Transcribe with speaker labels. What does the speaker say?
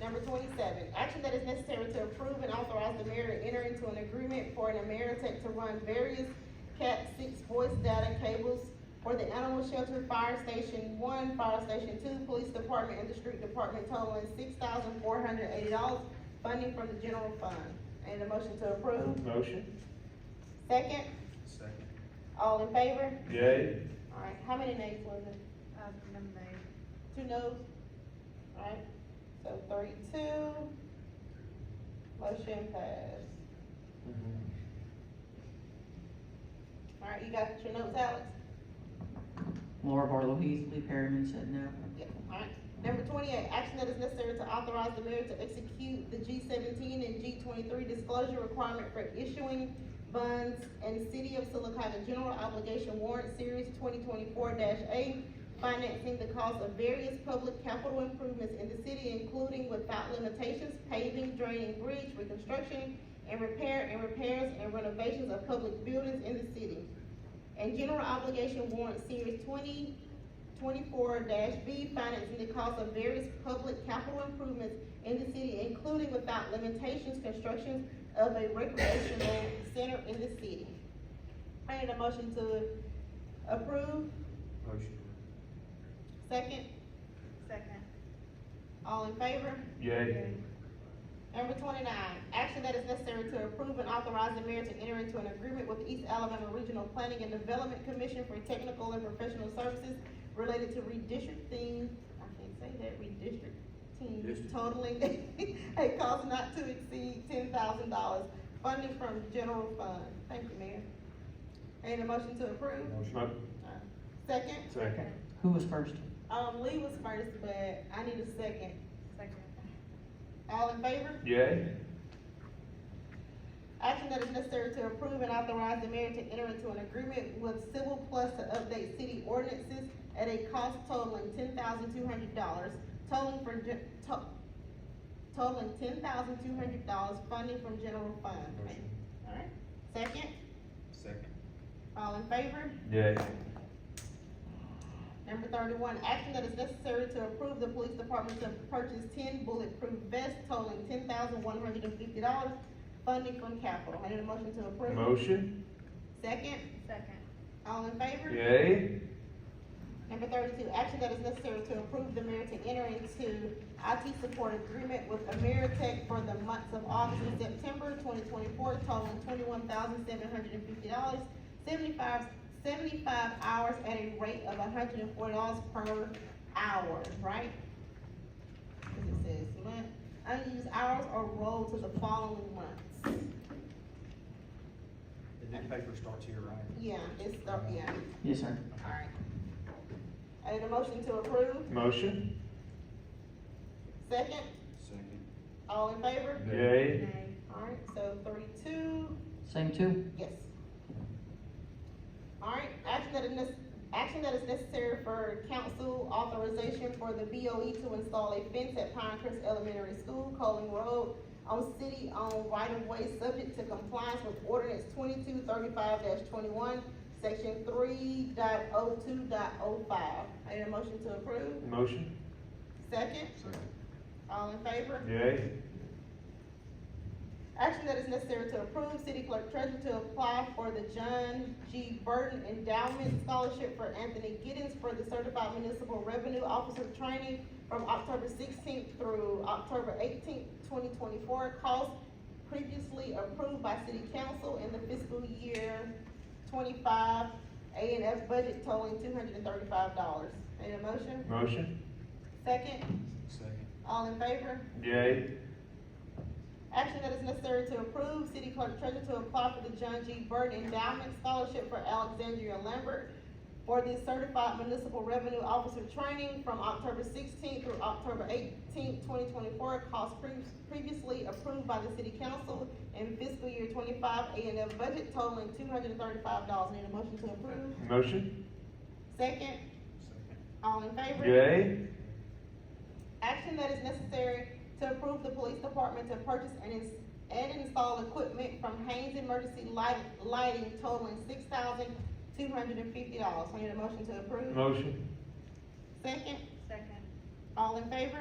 Speaker 1: Number twenty-seven, action that is necessary to approve and authorize the mayor to enter into an agreement for an Ameritech to run various Cat six voice data cables for the animal shelter, fire station one, fire station two, police department, and the street department totaling six thousand four hundred eighty dollars, funding from the general fund. And a motion to approve,
Speaker 2: Motion.
Speaker 1: second,
Speaker 3: Second.
Speaker 1: all in favor?
Speaker 2: Yay.
Speaker 1: Alright, how many nays was it?
Speaker 4: Um, number nine.
Speaker 1: Two noes? Alright, so three, two. Motion passed.
Speaker 3: Mm-hmm.
Speaker 1: Alright, you got your notes, Alex?
Speaker 5: Laura Barlow Heasley, Perryman said no.
Speaker 1: Yeah, alright. Number twenty-eight, action that is necessary to authorize the mayor to execute the G seventeen and G twenty-three disclosure requirement for issuing bonds and City of Silicotta General Obligation Warrant Series twenty twenty-four A, financing the cost of various public capital improvements in the city, including without limitations, paving, draining, bridge reconstruction, and repair and repairs and renovations of public buildings in the city. And General Obligation Warrant Series twenty twenty-four B, financing the cost of various public capital improvements in the city, including without limitations, construction of a recreational center in the city. I need a motion to approve,
Speaker 3: Motion.
Speaker 1: second,
Speaker 4: Second.
Speaker 1: all in favor?
Speaker 2: Yay.
Speaker 1: Number twenty-nine, action that is necessary to approve and authorize the mayor to enter into an agreement with East Alabama Regional Planning and Development Commission for technical and professional services related to redistricting, I can't say that, redistricting,
Speaker 3: District.
Speaker 1: totaling a cost not to exceed ten thousand dollars, funded from general fund. Thank you, Mayor. Need a motion to approve?
Speaker 2: Mo-
Speaker 1: Second,
Speaker 2: Second.
Speaker 5: Who was first?
Speaker 1: um, Lee was first, but I need a second.
Speaker 4: Second.
Speaker 1: All in favor?
Speaker 2: Yay.
Speaker 1: Action that is necessary to approve and authorize the mayor to enter into an agreement with Civil Plus to update city ordinances at a cost totaling ten thousand two hundred dollars, totaling for, gen- to- totaling ten thousand two hundred dollars funding from general fund.
Speaker 3: Motion.
Speaker 1: Alright, second,
Speaker 3: Second.
Speaker 1: all in favor?
Speaker 2: Yay.
Speaker 1: Number thirty-one, action that is necessary to approve the police department to purchase ten bulletproof vests totaling ten thousand one hundred and fifty dollars, funding from capital. I need a motion to approve.
Speaker 2: Motion.
Speaker 1: Second,
Speaker 4: Second.
Speaker 1: all in favor?
Speaker 2: Yay.
Speaker 1: Number thirty-two, action that is necessary to approve the mayor to enter into IT support agreement with Ameritech for the months of August and September twenty twenty-four, totaling twenty-one thousand seven hundred and fifty dollars, seventy-five, seventy-five hours at a rate of hundred and forty dollars per hour, right? Cause it says month, unused hours or roll to the following months.
Speaker 3: And then the paper starts here, right?
Speaker 1: Yeah, it's, the- yeah,
Speaker 5: Yes, sir.
Speaker 1: alright. I need a motion to approve,
Speaker 2: Motion.
Speaker 1: second?
Speaker 3: Second.
Speaker 1: All in favor?
Speaker 2: Yay.
Speaker 4: Nay.
Speaker 1: Alright, so thirty-two,
Speaker 5: Same two?
Speaker 1: yes. Alright, action that is, nec- action that is necessary for council authorization for the BOE to install a fence at Pinecrest Elementary School, Coling Road, on city-owned right-of-way, subject to compliance with ordinance twenty-two thirty-five twenty-one, section three dot oh two dot oh five. I need a motion to approve.
Speaker 2: Motion.
Speaker 1: Second,
Speaker 3: Second.
Speaker 1: all in favor?
Speaker 2: Yay.
Speaker 1: Action that is necessary to approve city clerk treasurer to apply for the John G. Burton Endowment Scholarship for Anthony Giddens for the Certified Municipal Revenue Officer Training from October sixteenth through October eighteenth, twenty twenty-four, cost previously approved by city council in the fiscal year twenty-five A and F budget totaling two hundred and thirty-five dollars. Need a motion?
Speaker 2: Motion.
Speaker 1: Second,
Speaker 3: Second.
Speaker 1: all in favor?
Speaker 2: Yay.
Speaker 1: Action that is necessary to approve city clerk treasurer to apply for the John G. Bird Endowment Scholarship for Alexandria Lambert for the Certified Municipal Revenue Officer Training from October sixteenth through October eighteenth, twenty twenty-four, cost pre- previously approved by the city council in fiscal year twenty-five A and F budget totaling two hundred and thirty-five dollars. Need a motion to approve?
Speaker 2: Motion.
Speaker 1: Second,
Speaker 3: Second.
Speaker 1: all in favor?
Speaker 2: Yay.
Speaker 1: Action that is necessary to approve the police department to purchase and ins- and install equipment from Haynes Emergency Light, Lighting totaling six thousand two hundred and fifty dollars. I need a motion to approve.
Speaker 2: Motion.
Speaker 1: Second,
Speaker 4: Second.
Speaker 1: all in favor?